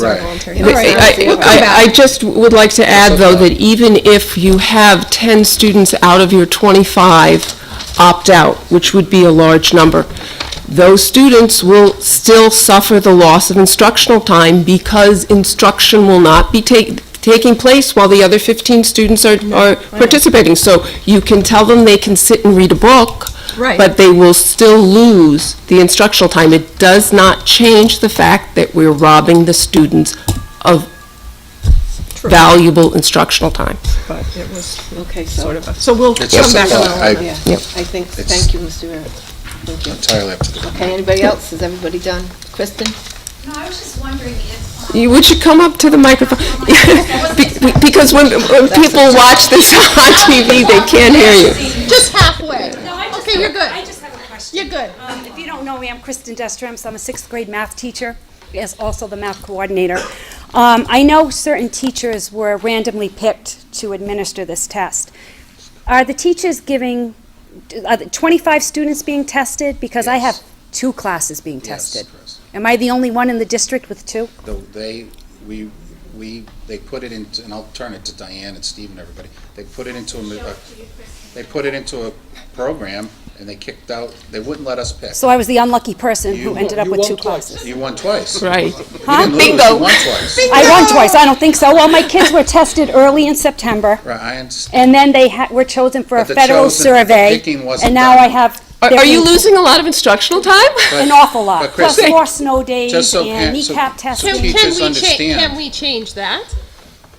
Right. voluntary. I- I I just would like to add, though, that even if you have 10 students out of your 25 opt out, which would be a large number, those students will still suffer the loss of instructional time because instruction will not be ta- taking place while the other 15 students are are participating. So you can tell them they can sit and read a book. Right. But they will still lose the instructional time. It does not change the fact that we're robbing the students of valuable instructional time. But it was Okay, sort so, of a, so we'll It's come just- back well, around. I- yeah, Yep. I think, It's- thank you, Mr. Rivera. Thank you. entirely up to the. Okay, anybody else? Is everybody done? Kristen? No, I was just wondering if, um, You- Would you come up to the microphone? Be- Because when when people watch this on TV, they can't hear you. Just halfway. no, I just Okay, you're good. I just have a question. You're good. Um, If you don't know me, I'm Kristen Destremps. I'm a sixth grade math teacher, as also the math coordinator. Um, I know certain teachers were randomly picked to administer this test. Are the teachers giving, are the 25 students being tested? Because I have two classes being tested. Am I the only one in the district with two? Though they, we, we, they put it into, and I'll turn it to Diane and Steve and everybody, they put it into a, mi- a- they put it into a program and they kicked out, they wouldn't let us pick. So I was the unlucky person You- who ended up you with won two twice. classes. You won twice. Right. You didn't lose, Bingo. you won twice. I won twice, I don't think so. Well, my kids were tested early in September. Right, I understand. And then they ha- were chosen for a But the federal chosen- the survey, picking wasn't and now done. I have. Are are you different- losing a lot of instructional time? An awful lot, But plus Kristen- more snow days Just so and parents- so- kneecap so testing. teach- teachers Can we cha- understand. Can we change that?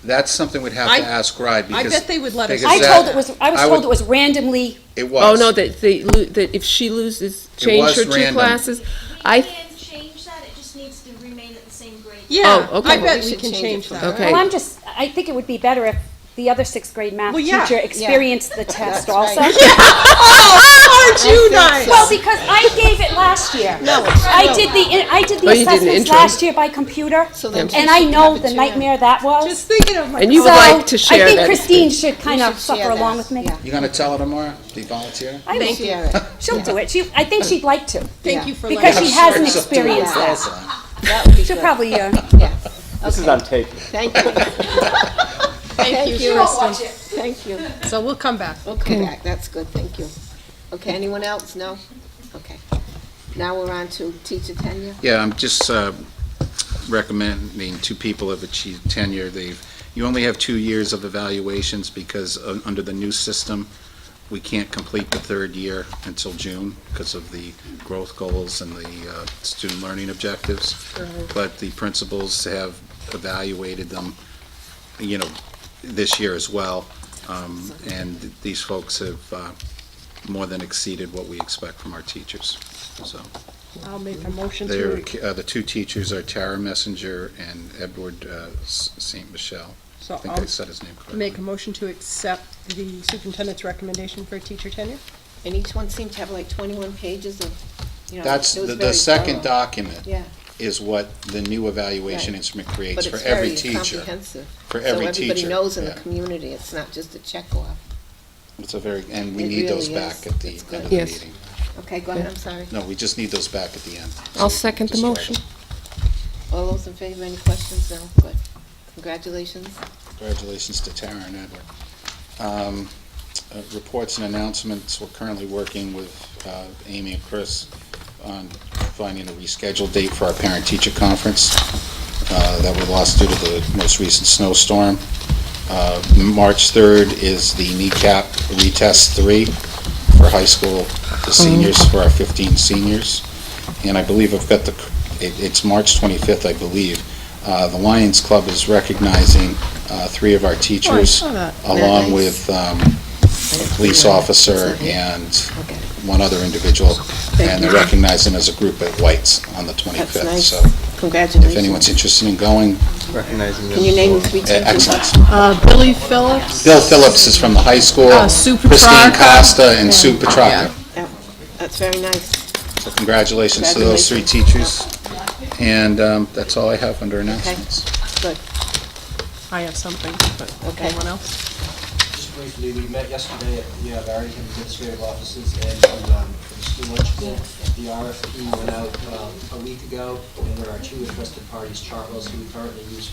That's something we'd have I- to ask RIDE I because. bet they would let us. because I is told that- it was, I was I told would- it was randomly, It Oh, was. no, that they, lo- that if she loses, was change her two random. classes. I- I th- th- can't can change that, it just needs to remain at the same grade. Yeah, Oh, Oh, okay. I Well, we bet we should can change it change from- that. Okay. well, I'm just, I think it would be better if the other sixth grade math Well, yeah, teacher yeah. experienced the test also. Aren't you nice? Well, because I gave it last year. No. I did the, in- I did the Oh, you did an assessments interim. last year by computer, then and I know the nightmare that was. Just thinking of Oh my. And you So, would like to share I think that Christine should kind You of should suffer share along that, with me. yeah. You gonna tell her tomorrow? Do you volunteer? I will. Share it. She'll do it. She, I think she'd like to. Thank you for Because letting she us- hasn't She'll do it experienced that. also. That would be She'll good. probably, uh, This is on tape. Thank you. Thank you, Kristen. Thank you. So we'll come back. We'll Mm. come back. That's good. Thank you. Okay, anyone else? No? Okay. Now we're on to teacher tenure. Yeah, I'm just uh, recommending two people have achieved tenure. They've, you only have two years of evaluations because uh, under the new system, we can't complete the third year until June because of the growth goals and the uh, student learning objectives. But the principals have evaluated them, you know, this year as well. Um, And these folks have uh, more than exceeded what we expect from our teachers, so. I'll make a motion They're, to, uh, the two teachers are Tara Messenger and Edward uh, S- St. Michelle. I so think I um, I'll said his name correctly. make a motion to accept the superintendent's recommendation for teacher tenure. And each one seemed to have like 21 pages of, you know. That's, uh, it was the, the very second thorough. document Yeah. is what the new evaluation Right. instrument But creates for it's every very teacher. comprehensive. For every So everybody teacher, knows in the yeah. community, it's not just a check off. It's a very, and we It need those really is. back at the It's end good. of the Yes. meeting. Okay, go ahead, I'm sorry. No, we just need those back at the end. I'll second the Just right. motion. All those in favor, any questions? No? Good. Congratulations. Congratulations to Tara and Edward. Um, uh, Reports and announcements, we're currently working with uh, Amy and Chris on finding a rescheduled date for our parent-teacher conference uh, that we lost due to the most recent snowstorm. Uh, March 3rd is the kneecap retest three for high school Hmm. seniors, for our 15 seniors. And I believe I've got the, c- it- it's March 25th, I believe. Uh, The Lions Club is recognizing uh, three of our teachers, Oh, saw that. along Nice. with um, a police officer and Okay. one other individual. And you. they're recognizing as a group at White's on the 25th. nice. So Congratulations. if anyone's interested in going, Recognizing Can you name the three eh, teachers? excellent. Uh, Billy Phillips. Bill Phillips is from the high school. Uh, Sue Christine Petrarca. Costa and Sue Petrarca. That's very nice. So congratulations to those three teachers. And um, that's all I have under announcements. I have something, but Okay. anyone else? briefly, we met yesterday at the uh, Barrington Administrative Offices and the, um, the School Lunch Club. The RFP went out um, a week ago, and there are two interested parties, Chartwell's, who we currently use for